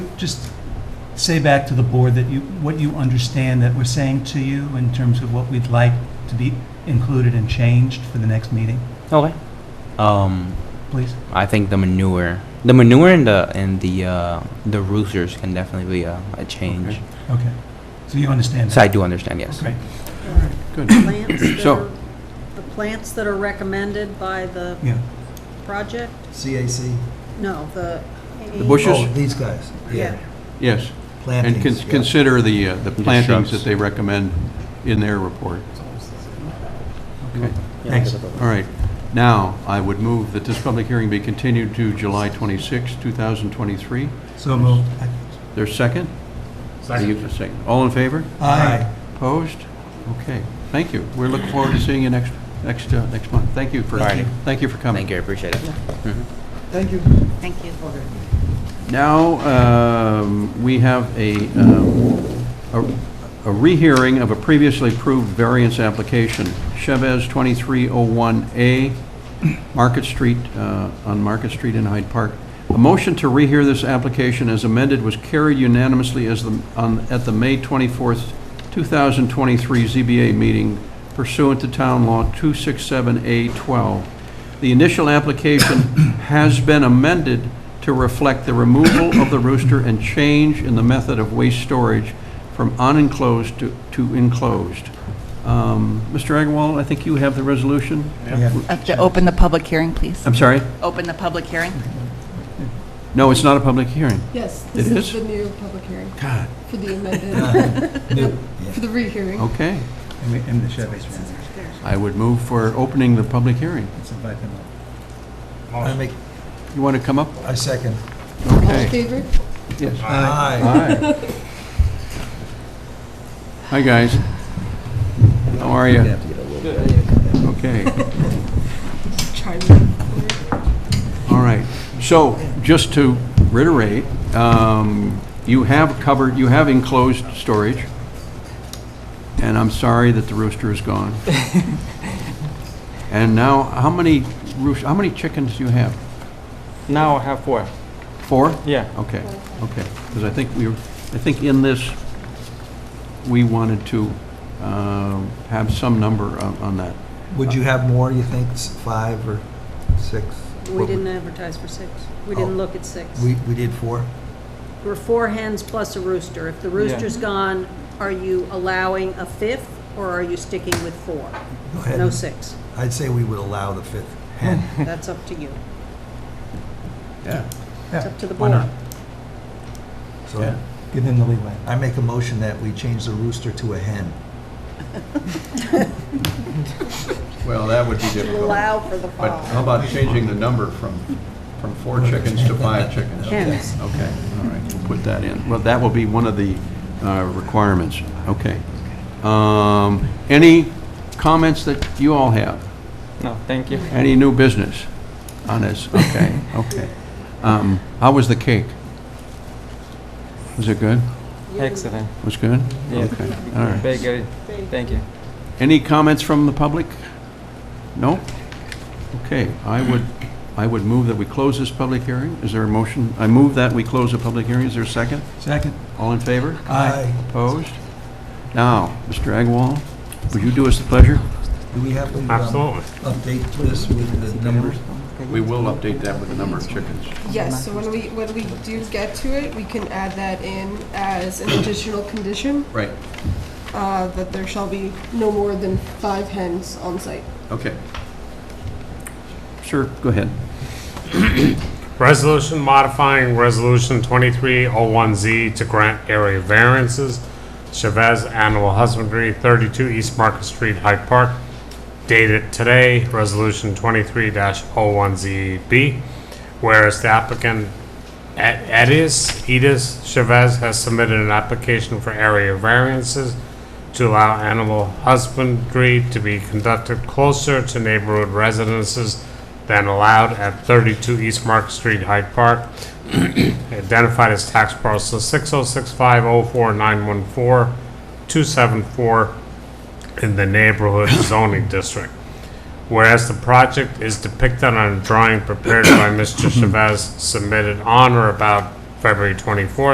just say back to the board that you, what you understand that we're saying to you in terms of what we'd like to be included and changed for the next meeting, Okay. Um, please? I think the manure, the manure and the and the uh, the roosters can definitely be a, a change. Okay. Okay. So you understand So I that? do understand. Yes. Great. Good. Plants that So- are, the plants that are recommended by the Yeah. project? CAC. No, the. The bushes? Oh, these guys, Yeah. yeah. Yes, and Plantings. cons- yeah. consider the, uh, the the plantings shrubs. that they recommend in their report. Okay, Thanks. all right. Now, I would move that this public hearing be continued to July 26, 2023. So moved. There's second? Second. Second. All in favor? Aye. Opposed? Okay, thank you. We're looking forward to seeing you next, next, uh, next month. Thank you for, Thank you. thank you for coming. Thank you. I appreciate it. Thank you. Thank you. Now, um, we have a, um, a- a rehearing of a previously approved variance application, Chavez 2301A, Market Street, uh, on Market Street in Hyde Park. A motion to rehear this application as amended was carried unanimously as the, on, at the May 24th, 2023 ZBA meeting pursuant to Town Law 267A12. The initial application has been amended to reflect the removal of the rooster and change in the method of waste storage from unenclosed to to enclosed. Um, Mr. Agarwal, I think you have the resolution? Uh, To open the public hearing, please. I'm sorry? Open the public hearing. No, it's not a public hearing. Yes, It this is? is the new public hearing God. for the amended, for the rehearing. Okay. And we, and the Chevy's round. I would move for opening the public hearing. Let's invite them up. I make, You want to come up? I second. All in Okay. favor? Yes. Aye. Hi. Hi, guys. How are you? Okay. Try me. All right. So, just to reiterate, um, you have covered, you have enclosed storage, and I'm sorry that the rooster is gone. And now, how many roos, how many chickens do you have? Now I have four. Four? Yeah. Okay, okay. Because I think we, were- I think in this, we wanted to um, have some number on on that. Would you have more, you think, s- five or six? We didn't advertise for six. We Oh. didn't look at six. We, we did four? We're four hens plus a rooster. If the rooster's gone, are you allowing a fifth or are you sticking with four? Go ahead. No six. I'd say we would allow the fifth hen. That's up to you. Yeah. It's up to the Why board. not? So Give them the leeway. I make a motion that we change the rooster to a hen. Well, that would be difficult. Allow for the But how fall. about changing the number from, from four chickens to five chickens? Hens. Okay, all right, we'll put that in. Well, that will be one of the uh, requirements, okay. Um, Any comments that you all have? No, thank you. Any new business on this? Okay, okay. Um, How was the cake? Was it good? Excellent. Was good? Yeah. Okay, all right. Very good. Thank you. Any comments from the public? No? Okay, I would, I would move that we close this public hearing. Is there a motion? I move that we close the public hearing. Is there a second? Second? All in favor? Aye. Opposed? Now, Mr. Agarwal, would you do us the pleasure? Do we have to um, update this with the numbers? We will update that with the number of chickens. Yes, so when we, when we do get to it, we can add that in as an additional condition, Right, uh, that there shall be no more than five hens on site. okay. Sure, go ahead. Resolution modifying Resolution 2301Z to grant area variances. Chavez Animal Husbandry, 32 East Market Street, Hyde Park. Dated today, Resolution 23-01ZB. Whereas the applicant Ed- Edis, Edis Chavez has submitted an application for area variances to allow animal husbandry to be conducted closer to neighborhood residences than allowed at 32 East Market Street, Hyde Park, identified as tax parcel 606504914-274 in the neighborhood zoning district. Whereas the project is depicted on a drawing prepared by Mr. Chavez submitted on or about February 24th,